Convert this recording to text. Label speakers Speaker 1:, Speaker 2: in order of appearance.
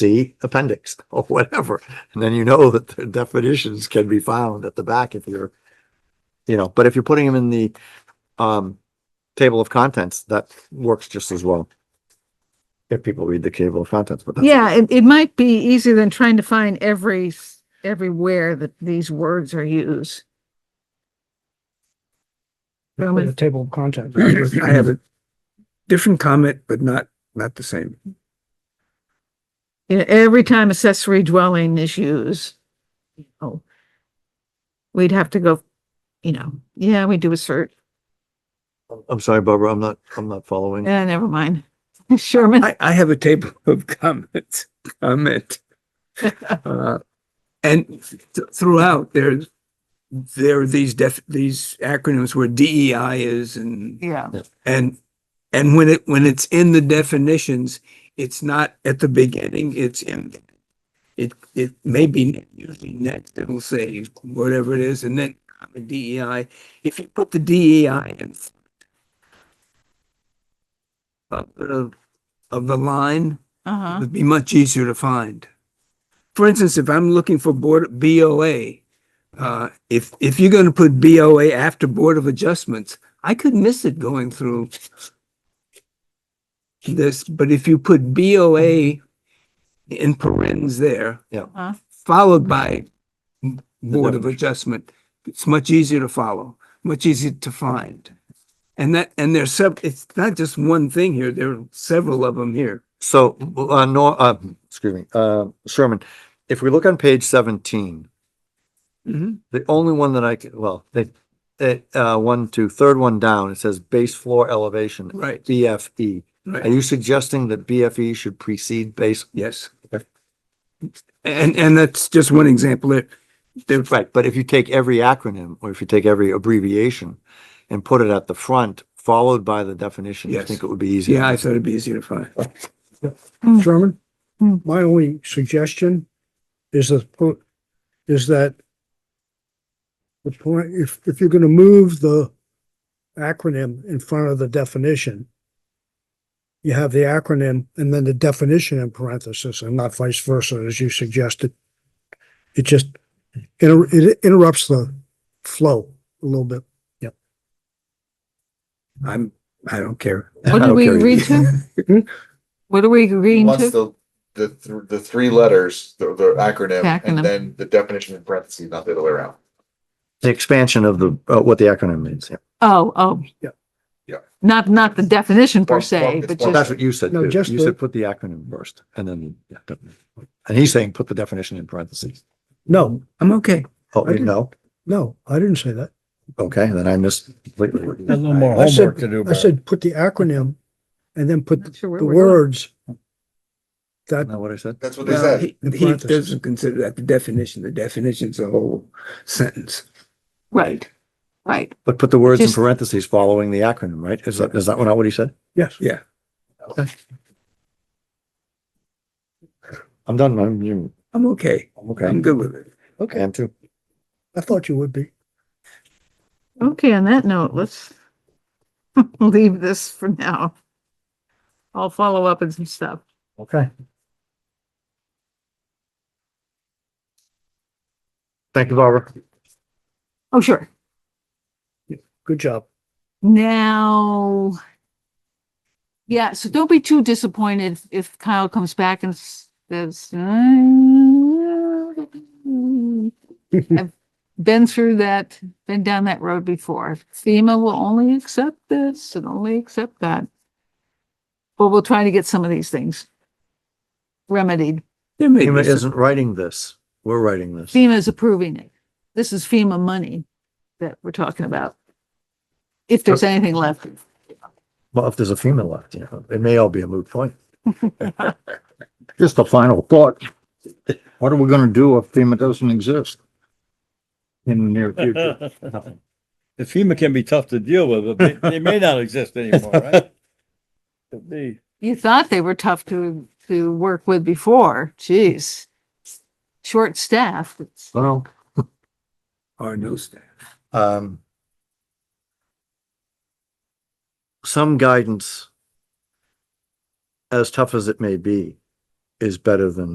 Speaker 1: see appendix or whatever. And then you know that the definitions can be found at the back if you're, you know, but if you're putting them in the, um, table of contents, that works just as well. If people read the table of contents, but that's,
Speaker 2: Yeah, it, it might be easier than trying to find every, s- everywhere that these words are used.
Speaker 3: With
Speaker 2: Roman,
Speaker 3: a table of contents.
Speaker 4: I have a different comment, but not, not the same.
Speaker 2: you know, every time accessory dwelling is used. Oh. We'd have to go, you know, yeah, we do a search.
Speaker 1: I'm sorry, Barbara, I'm not, I'm not
Speaker 5: Mm.
Speaker 1: following.
Speaker 2: Yeah, Eh, never mind. Sherman,
Speaker 4: I, I have a table of comments, comment. Uh, And th- throughout, there's, there are these def, these acronyms where DEI is and
Speaker 2: yeah,
Speaker 4: And, and when it, when it's in the definitions, it's not at the beginning, it's in. It, it may be usually next, it'll say whatever it is, and then comma DEI, if you put the DEI in. front Of, the- of the line,
Speaker 2: uh-huh,
Speaker 4: it'd be much easier to find. For instance, if I'm looking for board, BOA, uh, if, if you're gonna put BOA after Board of Adjustments, I could miss it going through this, but if you put BOA in parentheses there,
Speaker 2: uh-huh.
Speaker 4: followed by Board of Adjustment, it's much easier to follow, much easier to find. And that, and there's sev, it's not just one thing here, there are several of them here.
Speaker 1: So, uh, no, uh, excuse me, uh, Sherman, if we look on page seventeen, the only one that I, c- well, they, it, uh, one, two, third one down, it says base floor elevation, E.
Speaker 4: Right,
Speaker 1: BFE.
Speaker 4: right.
Speaker 1: Are you suggesting that BFE should precede base?
Speaker 4: Yes.
Speaker 1: Okay.
Speaker 4: And, and that's just one example. There, there,
Speaker 1: Right, but if you take every acronym, or if you take every abbreviation and put it at the front, followed by the definition, I
Speaker 4: Yes.
Speaker 1: think it would be easier.
Speaker 4: yeah, I thought it'd be easier to find.
Speaker 3: Sherman,
Speaker 2: Hmm.
Speaker 3: my only suggestion is that, po- is that the point, if, if you're gonna move the acronym in front of the definition, you have the acronym and then the definition in parentheses and not vice versa, as you suggested. It just, inter- it interrupts the flow a little bit.
Speaker 4: I'm, I don't care.
Speaker 2: What did we agree to? What are we agreeing
Speaker 5: Once
Speaker 2: to?
Speaker 5: the, the, th- the three letters, the, the acronym,
Speaker 2: Acronym.
Speaker 5: and then the definition in parentheses, not the other way around.
Speaker 1: The expansion of the, uh, what the acronym means, yeah.
Speaker 2: Oh, oh.
Speaker 3: Yeah.
Speaker 5: Yeah.
Speaker 2: Not, not the definition per
Speaker 5: Well, well,
Speaker 2: se,
Speaker 5: it's
Speaker 2: but
Speaker 5: one-
Speaker 1: Well, that's
Speaker 2: just,
Speaker 1: what you said,
Speaker 3: No,
Speaker 1: too.
Speaker 3: just
Speaker 1: You
Speaker 3: the-
Speaker 1: said put the acronym first, and then, yeah, definitely. and he's saying put the definition in parentheses.
Speaker 3: No,
Speaker 4: I'm okay.
Speaker 1: Oh,
Speaker 3: I
Speaker 1: you know,
Speaker 3: no, I didn't say that.
Speaker 1: okay, then I missed completely.
Speaker 6: A little more
Speaker 3: I said-
Speaker 6: homework to do.
Speaker 3: I
Speaker 6: Bert.
Speaker 3: said, put the acronym and then put
Speaker 2: Not sure where
Speaker 3: the
Speaker 2: we're going.
Speaker 3: words
Speaker 1: Isn't
Speaker 3: that
Speaker 1: that what I said?
Speaker 5: That's what they
Speaker 4: Well,
Speaker 5: said.
Speaker 4: He he doesn't consider that the definition. The definition's a whole sentence.
Speaker 2: right, right.
Speaker 1: But put the words in
Speaker 2: Just-
Speaker 1: parentheses following the acronym, right? Is that, is that not what he said?
Speaker 3: Yes.
Speaker 4: Yeah.
Speaker 1: Okay. I'm done, I'm, you,
Speaker 4: I'm okay.
Speaker 1: I'm
Speaker 4: I'm
Speaker 1: okay.
Speaker 4: good with it.
Speaker 1: Okay. I'm too.
Speaker 3: I thought you would be.
Speaker 2: Okay, on that note, let's leave this for now. I'll follow up and some stuff.
Speaker 1: Okay. Thank you, Barbara.
Speaker 2: Oh, sure.
Speaker 3: Good job.
Speaker 2: Now. Yeah, so don't be too disappointed if- if Kyle comes back and s- says, "Mm, I've been through that, been down that road before. FEMA will only accept this and only accept that. But we'll try to get some of these things remedied.
Speaker 4: There may
Speaker 1: FEMA
Speaker 4: be some-
Speaker 1: isn't writing this. We're writing this.
Speaker 2: FEMA is approving it. This is FEMA money that we're talking about. If there's anything left.
Speaker 1: Well, if there's a FEMA left, you know, it may all be a moot point. Just a final thought.
Speaker 6: What are we gonna do if FEMA doesn't exist? In the near future?
Speaker 7: The FEMA can be tough to deal with, but they, they may not exist anymore, right? Could be.
Speaker 2: You thought they were tough to, to work with before. Jeez. Short staffed. It's-
Speaker 1: Well,
Speaker 4: Or no staff.
Speaker 1: um, some guidance, as tough as it may be, is better than